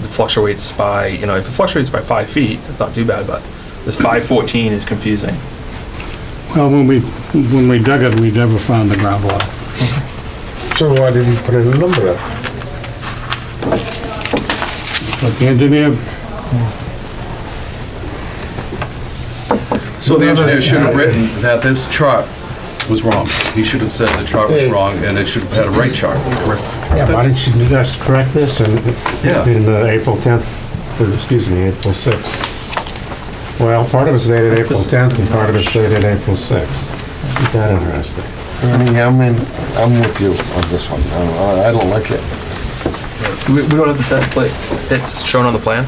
it fluctuates by, you know, if it fluctuates by five feet, it's not too bad, but this five fourteen is confusing. Well, when we, when we dug it, we never found the groundwater. So why did you put in a number up? But the engineer, So the engineer should have written that this chart was wrong. He should have said the chart was wrong, and it should have had a right chart. correct? Yeah, why don't you just correct this in, in uh, April 10th, or excuse me, April 6th? Well, part of it's dated April 10th and part of it's dated April 6th. Isn't that interesting? Yeah, I mean, I'm with you on this one. Oh, I I don't like it. We, we don't have the test plate, it's shown on the plan,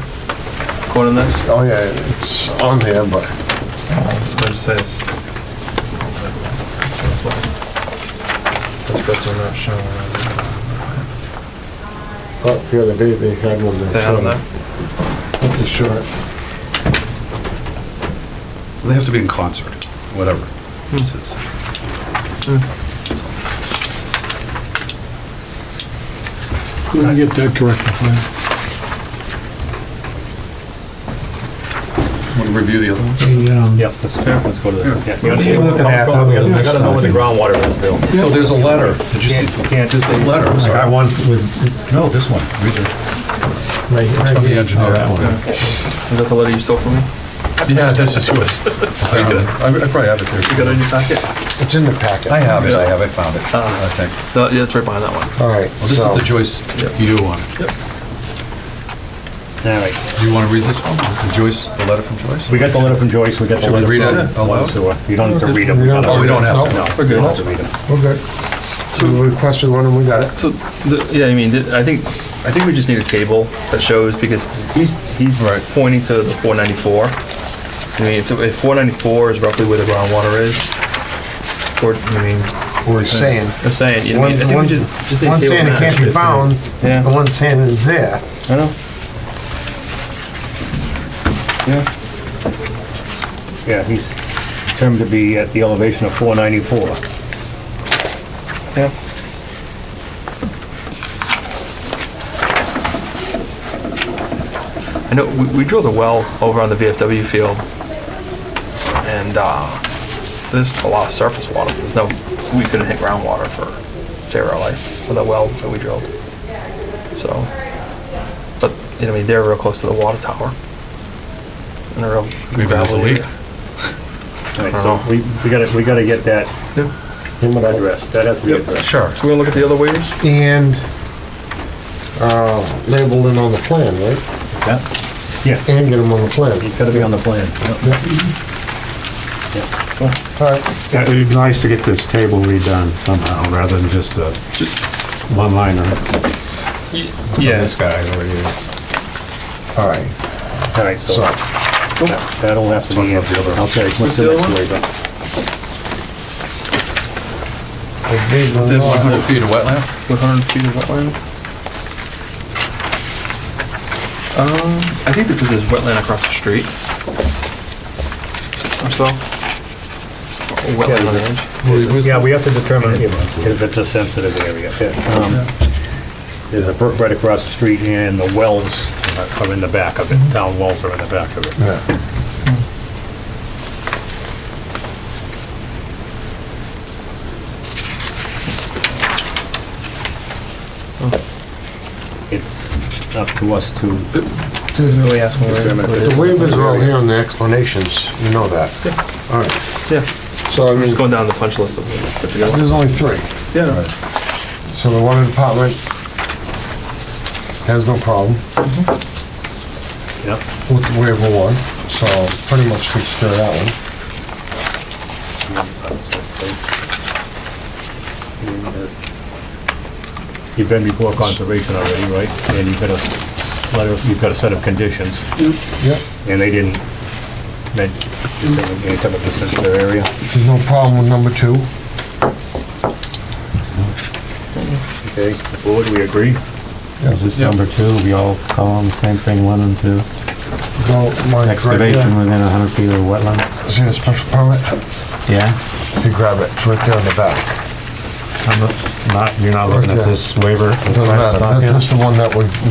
according to this, Oh, yeah, it's on there, but it says. Those bits are not shown on there. uh, the other day they had one They had on there. that showed, they showed it. They have to be in concert, whatever. This is- we can get that corrected for you. Want to review the other one? Um, Yep, let's, let's go to that. Yeah, We're looking at how the other I gotta know what the stuff- groundwater is, Bill. So there's a letter. Did you see? Can't This is letter, I'm I sorry. got one with, No, this one. Read it. right It's right from the here. engineer. Is that the letter you stole from me? Yeah, this is yours. Um, I I probably have it You here. got it in your packet? It's in the packet. I have it, I have, I found it, I think. No, yeah, it's right behind that one. All right, Well, this is so, the Joyce you one. All right, Do you want to read this one? The Joyce, the letter from Joyce? we got the letter from Joyce, we got the Should we letter read from. it aloud? So, uh, You don't have to read them. Oh, we don't have to. No, We're we good. don't have to read them. we're good. So we requested one and we got it. So, the, yeah, I mean, th- I think, I think we just need a table that shows, because he's, he's Right. pointing to the four ninety-four. I mean, if, if four ninety-four is roughly where the groundwater is, or, I mean, We're saying, I'm saying, you know, I one, mean, I think one, we just, just need a one table saying it that can't be shows- found, Yeah. and one saying it's there. I know. Yeah, he's determined to be at the elevation of four ninety-four. Yeah. I know, we, we drilled a well over on the VFW field, and, uh, there's a lot of surface water, there's no, we couldn't hit groundwater for, say, our life, with a well that we drilled, so. But, you know, I mean, they're real close to the water tower. And a real. Maybe there's a gravelly leak. area. All right, so Uh-huh. we, we gotta, we gotta get that addressed, that has to be addressed. Sure. So we're gonna look at the other waivers? And, uh, labeled it on the plan, right? Yeah, And get them on the plan. gotta be on the plan. All right, Yeah, It'd be nice to get this table redone somehow, rather than just uh, a one-liner from Yeah. this guy over here. all right, All right, so so, that- that'll have to be answered. Okay, what's the the other next one? waiver? I gave them There's all. 100 feet of wetland? One hundred feet of wetland? Um, I think because there's wetland across the street. Or so. Or Wetland on the edge. Yeah, we have to determine if it's a sensitive area. Um, There's a brook right across the street and the wells are in the back of it, town wells are in the back of it. Yeah. It's up to us to Really asking determine if The it's, waivers are all here on the explanations, you know that. All right, Yeah, so I mean, just going down the punch list of what we put together. there's only three. Yeah. So the water department has no problem yeah. with the waiver one, so pretty much takes care of that one. You've been before conservation already, right? And you've got a letter, you've got a set of conditions, Yep, and they didn't mention any type of sensitive area. there's no problem with number two. Okay, the board, we agree? Is this number two, we all call them the same thing, one and two? Don't mind Excavation correcting. within hundred feet of wetland? See the special permit? Yeah. If you grab it, it's right there on the back. I'm not, you're not looking at this waiver? Doesn't request matter, on That- here? that's the one that would